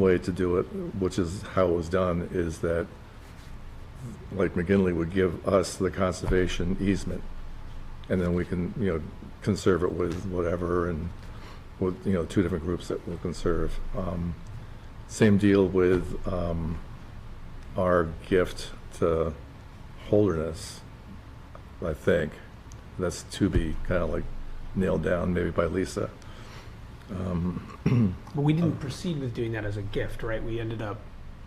way to do it, which is how it was done, is that, like McGinley would give us the conservation easement, and then we can, you know, conserve it with whatever, and with, you know, two different groups that will conserve. Um, Same deal with um, our gift to Holderness, I think. That's to be kind of like nailed down, maybe by Lisa. But we Um, didn't proceed with doing that as a gift, right? We ended up,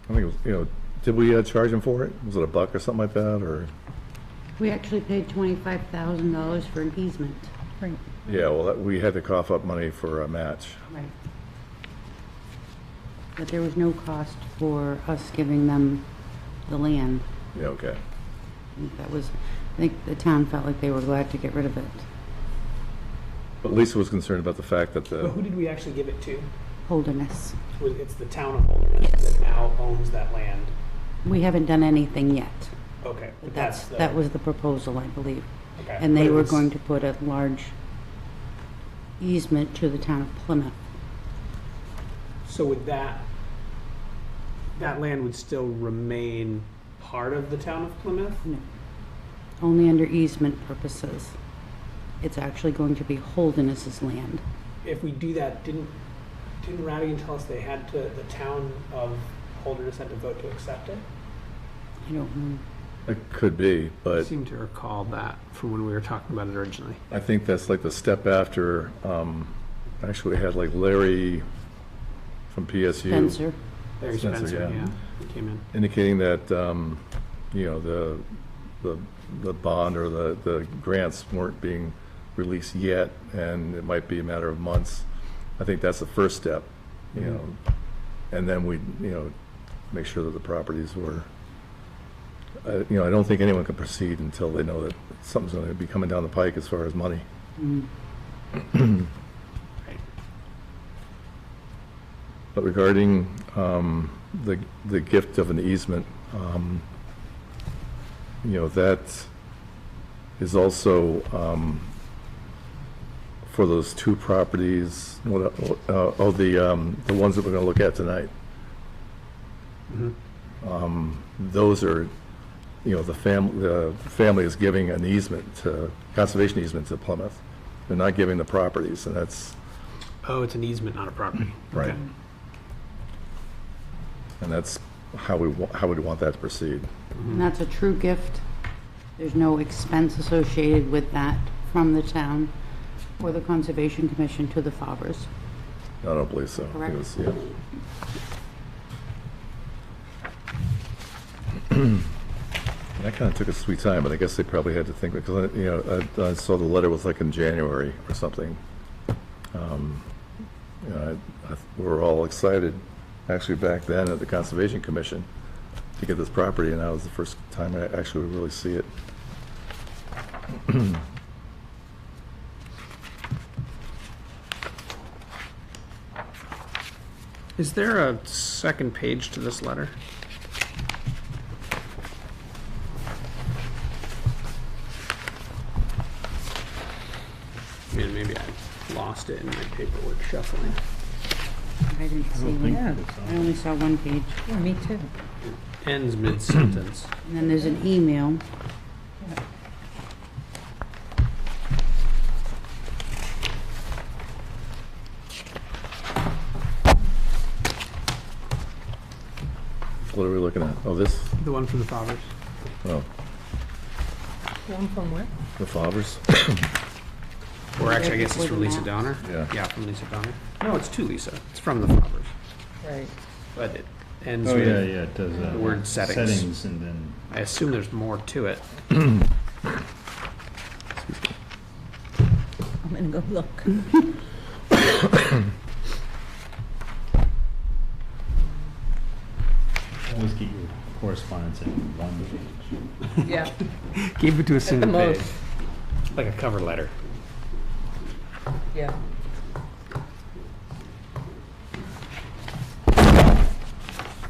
I think, it was you know, did we uh, charge him for it? Was it a buck or something like that, or? We actually paid twenty-five thousand dollars for an easement. Right. Yeah, well, that- we had to cough up money for a match. Right. But there was no cost for us giving them the land. Yeah, okay. I think That was, I think the town felt like they were glad to get rid of it. But Lisa was concerned about the fact that but who the, did we actually give it to? Holderness. Was- It's the town of Holderness that now owns that land. We haven't done anything yet. Okay, but That's, that's the. that was the proposal, I believe. okay. And they But it were was- going to put a large easement to the town of Plymouth. So would that, that land would still remain part of the town of Plymouth? Only under easement purposes. It's actually going to be Holderness's land. If we do that, didn't, didn't Radigan tell us they had to, the town of Holderness had to vote to accept it? I don't know. it could be, but seem to recall that from when we were talking about it originally. I think that's like the step after, um, actually we had like Larry from PSU Spencer, Larry Spencer, Spencer, yeah. yeah, he came in. indicating that, um, you know, the, the, the bond or the, the grants weren't being released yet, and it might be a matter of months. I think that's the first step, you know, and then we, you know, make sure that the properties were, I- you know, I don't think anyone can proceed until they know that something's going to be coming down the pike as far as money. Right. But regarding um, the, the gift of an easement, um, you know, that is also um, for those two properties, what, uh, oh, the, um, the ones that we're going to look at tonight. Mm-hmm. Um, Those are, you know, the fam, the family is giving an easement to, conservation easement to Plymouth. They're not giving the properties, and that's, Oh, it's an easement, not a property. Mm, Right. Okay. and that's how we, wa- how we'd want that to proceed. and that's a true gift. There's no expense associated with that from the town or the Conservation Commission to the Fawbers. No, I don't believe so. I think it was- yeah. And That kind of took a sweet time, but I guess they probably had to think, because, uh, you know, I, I saw the letter was like in January or something. Um, You know, I, I, we were all excited, actually back then at the Conservation Commission, to get this property, and that was the first time I actually really see it. Is there a second page to this letter? Man, maybe I lost it in my paperwork shuffling. I didn't see one. Yeah, I only saw one page. yeah, me too. Ends mid-sentence. And then there's an email. What are we looking at? Oh, this, The one from the Fobbers. oh, One from where? the Favres? Or actually, I guess it's from With the Lisa Donner? Yeah. Yeah, from Lisa Donner. No, it's to Lisa. It's from the Fobbers. Right. But it ends Oh, yeah, with, yeah, it does. uh, the word settings. Settings and then, I assume there's more to it. I'm gonna go look. always get your correspondence in one page. Yeah. Keep it to a single most. page. Like a cover letter. Yeah.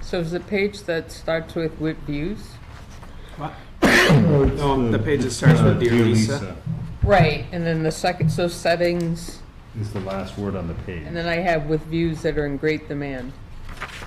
So is the page that starts with with views? What? No, the page that starts Uh, with Dear Lisa. Right, and then the second, so settings, Is the last word on the page. and then I have with views that are in great demand.